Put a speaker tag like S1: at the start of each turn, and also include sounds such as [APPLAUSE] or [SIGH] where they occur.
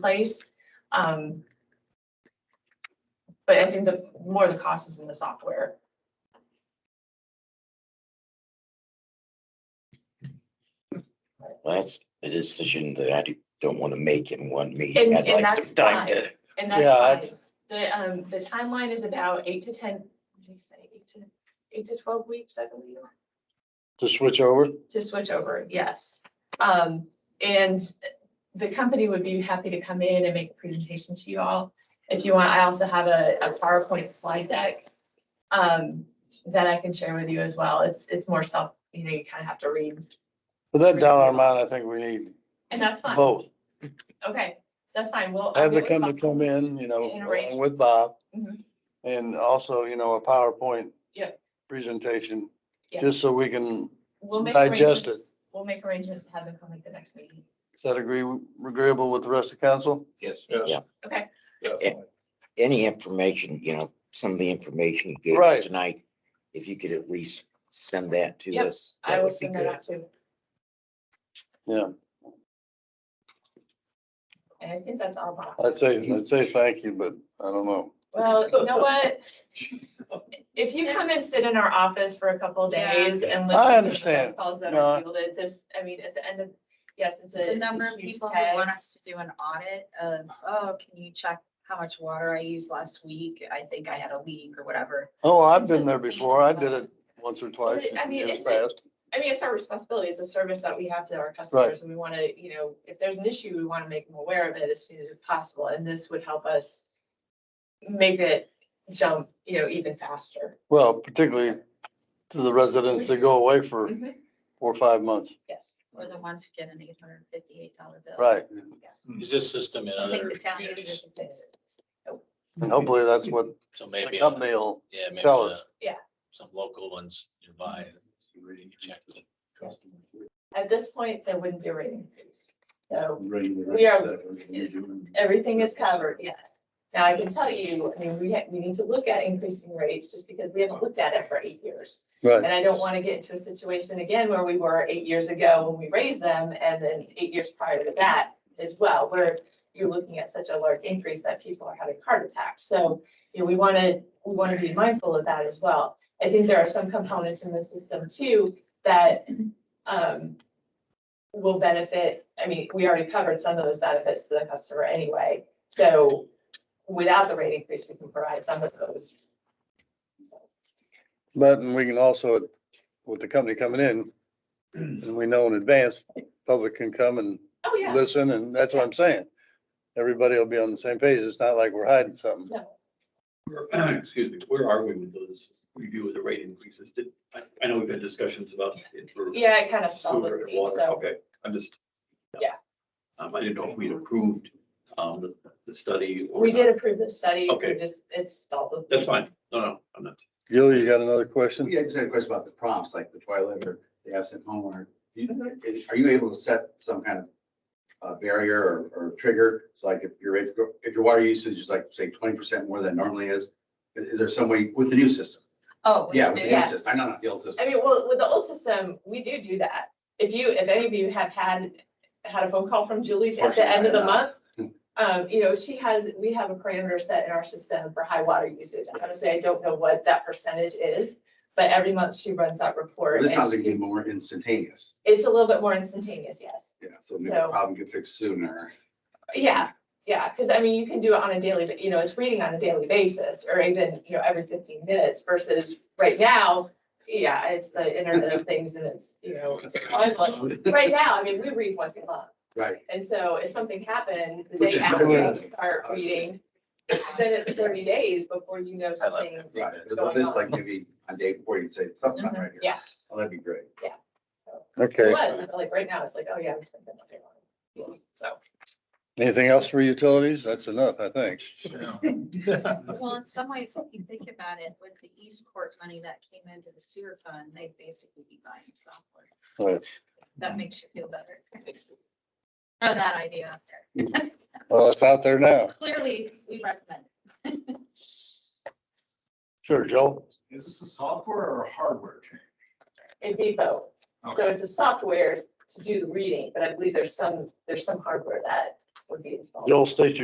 S1: replaced. Um. But I think the more the cost is in the software.
S2: Well, That's a decision that I do- don't want to make in one meeting.
S1: And-
S2: I'd
S1: and
S2: like
S1: that's
S2: some time
S1: fine.
S2: to,
S1: And
S3: Yeah,
S1: that's fine.
S3: that's-
S1: The, um, the timeline is about eight to ten, what did you say, eight to, eight to twelve weeks, I believe,
S3: to switch over.
S1: to switch over, yes. Um, and the company would be happy to come in and make a presentation to you all. If you want, I also have a, a PowerPoint slide deck. Um, that I can share with you as well. It's, it's more self, you know, you kind of have to read
S3: For that dollar amount, I think we need
S1: and that's fine.
S3: both.
S1: Okay, that's fine. We'll. I'll
S3: Have the
S1: get with
S3: company
S1: Bob.
S3: come in, you know,
S1: And arrange.
S3: along with Bob.
S1: Mhm.
S3: And also, you know, a PowerPoint.
S1: Yep.
S3: Presentation,
S1: Yep.
S3: just so we can,
S1: We'll make
S3: digest
S1: arrangements. We'll make arrangements to have them come at the next meeting.
S3: is that agree, agreeable with the rest of council?
S4: Yes.
S2: Yeah.
S1: Okay.
S4: Definitely.
S2: any information, you know, some of the information you gave
S3: Right.
S2: us tonight, if you could at least send that to
S1: Yep,
S2: us,
S1: I
S2: that
S1: will
S2: would be
S1: send that
S2: good.
S1: out too.
S3: Yeah,
S1: And I think that's all. Bob.
S3: I'd say, I'd say thank you, but I don't know.
S1: Well, you know
S3: [LAUGHS]
S1: what? If you come and sit in our office for a couple of
S5: Yeah.
S1: days and listen.
S3: I
S1: to the
S3: understand.
S1: Calls that
S3: No,
S1: are
S3: I-
S1: fielded, this, I mean, at the end of, yes, it's a.
S5: The number of
S1: huge
S5: people
S1: tag.
S5: who want us to do an audit of, oh, can you check how much water I used last week? I think I had a leak or whatever.
S3: Oh, I've
S1: It's a-
S3: been there before. I did it once or twice
S1: I
S3: in
S1: mean,
S3: years
S1: it's a-
S3: past.
S1: I mean, it's our responsibility. It's a service that we have to our customers and we want to, you know, if there's an issue, we want to make them aware of it as soon as possible. And this would help us make it jump, you know, even faster.
S3: Well, particularly to the residents that go away for
S1: Mm-hmm.
S3: four or five months.
S1: Yes.
S5: Or the ones who get an eight hundred and fifty-eight dollar bill.
S3: Right.
S6: Is this system in
S5: I think
S6: other
S5: the town needed
S6: communities?
S5: to fix it.
S3: And hopefully that's what
S6: So
S3: the
S6: maybe, on-
S3: company will,
S6: yeah, maybe
S3: tell
S6: on
S3: us.
S6: a-
S1: Yeah.
S6: some local ones nearby. you can check with them.
S1: At this point, there wouldn't be a rate increase. So We are- everything is covered, yes. Now, I can tell you, I mean, we, ha- we need to look at increasing rates just because we haven't looked at it for eight years.
S3: right.
S1: And I don't want to get into a situation again where we were eight years ago when we raised them and then eight years prior to that as well, where you're looking at such a large increase that people are having heart attacks. So, you know, we want to, we want to be mindful of that as well. I think there are some components in the system too that um will benefit, I mean, we already covered some of those benefits to the customer anyway. So without the rate increase, we can provide some of those.
S3: But and we can also, with the company coming in, and we know in advance, public can come and
S1: Oh, yeah.
S3: listen, and that's what I'm saying. Everybody will be on the same page. It's not like we're hiding something.
S4: [CLEARS THROAT] Excuse me, where are we with those review of the rate increases? Did, I, I know we've had discussions about it for
S1: Yeah, it kind of stalled
S4: sewer
S1: with
S4: and
S1: me,
S4: water.
S1: so.
S4: Okay, I'm just.
S1: Yeah.
S4: Um, I didn't know if we'd approved, um, the, the study. or
S1: We
S4: not.
S1: did approve the study, we
S4: Okay.
S1: just, it's stalled with. me.
S4: That's fine. No, no, I'm not.
S3: Gil, you got another question?
S7: Yeah, I just had a question about the prompts, like the toilet or the absent homeowner. Do you-
S1: Mm-hmm.
S7: is- Are you able to set some kind of uh, barrier or, or trigger? So like if your rates, go- if your water usage is like, say, twenty percent more than it normally is, is, is there some way with the new system?
S5: Oh. we
S7: Yeah,
S5: did.
S7: with the new
S1: yeah.
S7: system. I know not the old system.
S1: I mean, well, with the old system, we do do that. If you, if any of you have had, had a phone call from Julie's at the end of the month, um, you know, she has, we have a parameter set in our system for high water usage. And Honestly, I don't know what that percentage is, but every month she runs that report.
S7: This sounds
S1: and
S7: like it's more instantaneous.
S1: It's a little bit more instantaneous, yes.
S7: Yeah, so maybe the
S1: So-
S7: problem get fixed sooner.
S1: Yeah, yeah, because I mean, you can do it on a daily, ba- you know, it's reading on a daily basis or even, you know, every fifteen minutes versus right now. Yeah, it's the Internet of Things and it's, you know, it's online, but right now, I mean, we read once a month.
S7: Right.
S1: And so if something happened the
S7: Which
S1: day
S7: is
S1: after you
S3: good.
S1: start reading, then it's thirty days before you know something.
S7: Right.
S1: What's
S7: But
S1: going
S7: then
S1: on? Mm-hmm.
S7: like maybe on day four, you'd say something not right here.
S1: Yeah.
S7: Well, That'd be great.
S1: so. It
S3: Okay.
S1: was, but like right now, it's like, oh yeah, it's been nothing on. So.
S3: Anything else for utilities? That's enough, I think.
S5: Well, in some ways, if you think about it, with the East Court money that came into the sewer fund, they'd basically be buying software.
S3: Right.
S5: That makes you feel better. Throw that idea out there.
S3: Well, it's out there now.
S5: [LAUGHS] Clearly, we recommend.
S3: Sure, Joel.
S7: [LAUGHS] Is this a software or a hardware change?
S1: It'd be both. So it's a software to do the reading, but I believe there's some, there's some hardware that would be installed.
S3: The old station